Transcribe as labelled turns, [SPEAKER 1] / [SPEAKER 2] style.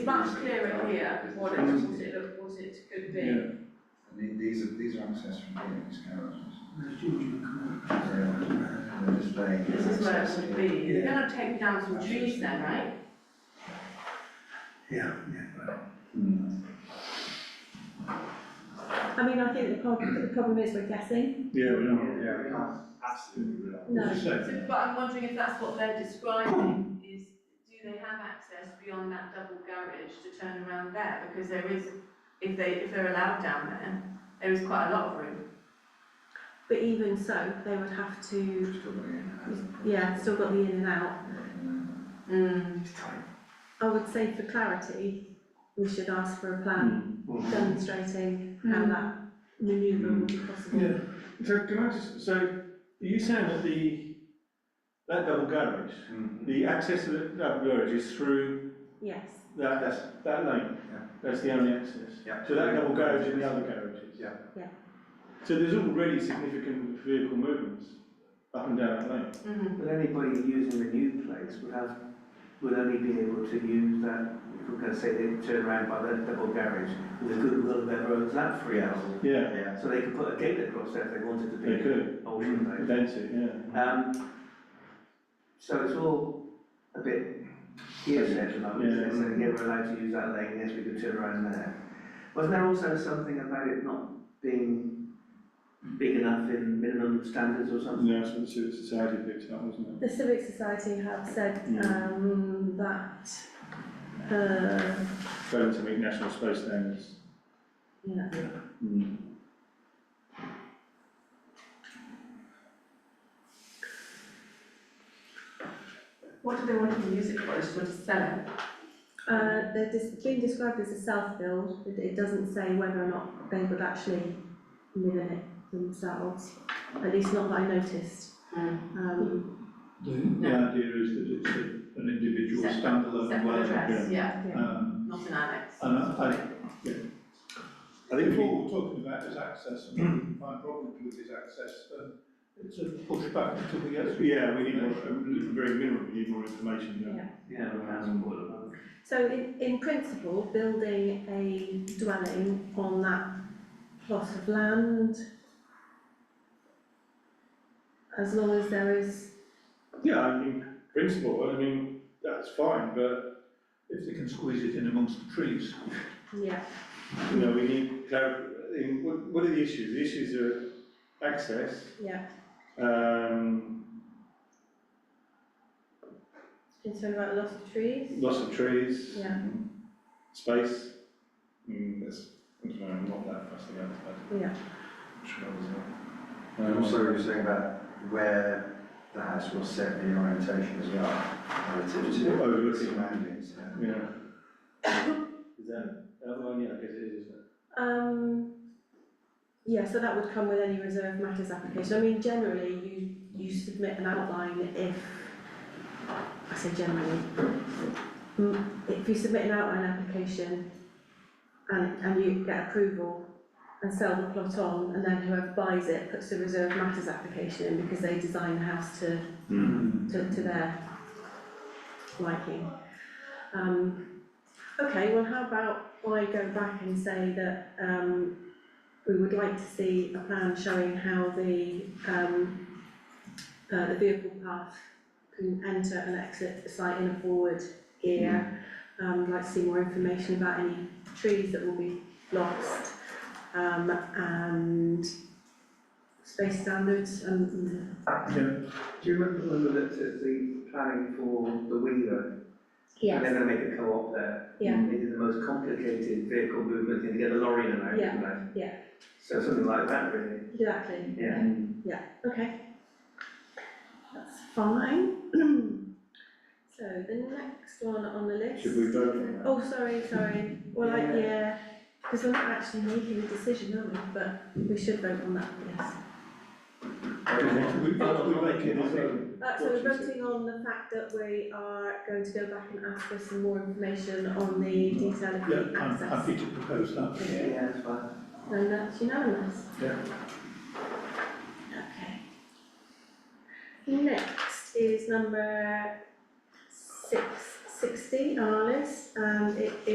[SPEAKER 1] It's much clearer here, what it, what it, what it could be.
[SPEAKER 2] Yeah,
[SPEAKER 3] And the- these are, these are ancestral buildings, characters.
[SPEAKER 4] Well,
[SPEAKER 3] They're displaying.
[SPEAKER 1] This is where it would be. You're
[SPEAKER 4] Yeah.
[SPEAKER 1] gonna take down some trees then, right?
[SPEAKER 4] Yeah, yeah, well,
[SPEAKER 3] Mm.
[SPEAKER 5] I mean, I think the problem, the problem is we're guessing.
[SPEAKER 2] yeah, we are.
[SPEAKER 6] Yeah, absolutely, we are.
[SPEAKER 5] No.
[SPEAKER 2] It's a shame.
[SPEAKER 1] So, but I'm wondering if that's what they're describing, is do they have access beyond that double garage to turn around there? Because there is, if they, if they're allowed down there, there is quite a lot of room.
[SPEAKER 5] But even so, they would have to,
[SPEAKER 3] Still got it in.
[SPEAKER 5] yeah, still got the in and out.
[SPEAKER 3] Yeah.
[SPEAKER 1] Mm.
[SPEAKER 5] I would say for clarity, we should ask for a plan
[SPEAKER 2] Hmm.
[SPEAKER 5] demonstrating how
[SPEAKER 1] Mm.
[SPEAKER 5] that manoeuvre would be possible.
[SPEAKER 2] Yeah, so can I just, so are you saying that the, that double garage,
[SPEAKER 3] Hmm.
[SPEAKER 2] the access to the double garage is through
[SPEAKER 5] Yes,
[SPEAKER 2] that, that's, that lane?
[SPEAKER 3] Yeah.
[SPEAKER 2] That's the only access?
[SPEAKER 3] Yeah.
[SPEAKER 2] So that double garage and the other garages?
[SPEAKER 3] Yeah.
[SPEAKER 5] Yeah.
[SPEAKER 2] So there's already significant vehicle movements up and down that lane?
[SPEAKER 1] Mhm.
[SPEAKER 6] But anybody using the new place would have, would only be able to use that, if we're gonna say they turn around by that double garage, with a good little bit of roads, that free out.
[SPEAKER 2] Yeah,
[SPEAKER 6] So they could put a gate across there if they wanted to be.
[SPEAKER 2] they could,
[SPEAKER 6] Or shouldn't they?
[SPEAKER 2] condense it, yeah.
[SPEAKER 6] Um, so it's all a bit hearsay at the moment, isn't it? so yeah, we're allowed to use that lane, yes, we could turn around there. Wasn't there also something about it not being big enough in minimum standards or something?
[SPEAKER 2] No, that's what the civil society picked up, wasn't
[SPEAKER 5] the civic society have said,
[SPEAKER 2] Mm.
[SPEAKER 5] um, that, uh,
[SPEAKER 2] it? Failing to meet national space standards.
[SPEAKER 5] yeah,
[SPEAKER 2] Mm.
[SPEAKER 1] What do they want to use it for? They just want to sell it?
[SPEAKER 5] uh, they're just being described as a self-build, it, it doesn't say whether or not they would actually live in it themselves, at least not that I noticed.
[SPEAKER 1] Mm.
[SPEAKER 5] Um,
[SPEAKER 7] The, the idea is that it's a- an individual
[SPEAKER 1] Separate-
[SPEAKER 7] standalone
[SPEAKER 1] Separate
[SPEAKER 7] dwelling.
[SPEAKER 1] address, yeah,
[SPEAKER 7] Um,
[SPEAKER 1] not an annex.
[SPEAKER 7] and I, I,
[SPEAKER 2] I
[SPEAKER 7] yeah. I
[SPEAKER 2] think
[SPEAKER 7] think
[SPEAKER 2] we,
[SPEAKER 7] what we're talking about is access, and my problem with is access, um, it's a pushback until we get. through.
[SPEAKER 2] yeah, we need more, very minimal, we need more information, yeah.
[SPEAKER 5] yeah.
[SPEAKER 6] Yeah, that's important.
[SPEAKER 5] So in, in principle, building a dwelling on that plot of land, as long as there is,
[SPEAKER 2] Yeah, I mean, principle, I mean, that's fine, but,
[SPEAKER 7] If they can squeeze it in amongst the trees.
[SPEAKER 5] yeah,
[SPEAKER 2] you know, we need clar, in, what, what are the issues? The issues are access,
[SPEAKER 5] yeah,
[SPEAKER 2] um,
[SPEAKER 5] concerned about loss of trees,
[SPEAKER 2] loss of trees,
[SPEAKER 5] yeah,
[SPEAKER 2] space. Mm, that's, I don't know, I'm not that fussed about that.
[SPEAKER 5] yeah,
[SPEAKER 3] Shrubs, yeah. And also you were saying about where the house will set the orientation as well, relative to.
[SPEAKER 2] Oh, relative.
[SPEAKER 3] surroundings, yeah.
[SPEAKER 2] Yeah. Is that, that one, yeah, I guess it is, isn't it?
[SPEAKER 5] um, yeah, so that would come with any reserve matters application, I mean, generally, you, you submit an outline if, I say generally, Mm, if you submit an outline application and, and you get approval and sell the plot on, and then whoever buys it puts the reserve matters application in because they design the house to,
[SPEAKER 3] Hmm.
[SPEAKER 5] to, to their liking. Um, okay, well, how about I go back and say that, um, we would like to see a plan showing how the, um, uh, the vehicle path can enter and exit the site in a forward gear. Um, we'd like to see more information about any trees that will be lost, um, and space standards and,
[SPEAKER 6] Do you remember when we looked at the planning for the Wheeler? And they're
[SPEAKER 5] yes,
[SPEAKER 6] gonna make a co-op there.
[SPEAKER 5] Yeah.
[SPEAKER 6] They did the most complicated vehicle movement thing to get a lorry in and out,
[SPEAKER 5] Yeah,
[SPEAKER 6] didn't they?
[SPEAKER 5] yeah.
[SPEAKER 6] So something like that, really,
[SPEAKER 5] exactly.
[SPEAKER 6] yeah.
[SPEAKER 5] Okay. That's fine. So the next one on the list.
[SPEAKER 2] Should we vote on that?
[SPEAKER 5] Oh, sorry, sorry. Well, I, yeah, because we're not actually making a decision, are we? But we should vote on that, yes.
[SPEAKER 7] We, we make it,
[SPEAKER 5] Uh, so we're
[SPEAKER 2] What she said.
[SPEAKER 5] voting on the fact that we are going to go back and ask for some more information on the detail of the
[SPEAKER 7] yeah, I'm
[SPEAKER 5] access.
[SPEAKER 7] happy to propose that.
[SPEAKER 6] Yeah, that's fine.
[SPEAKER 5] And that's unanimous?
[SPEAKER 7] Yeah.
[SPEAKER 5] Okay. Next is number six sixty on our list, and it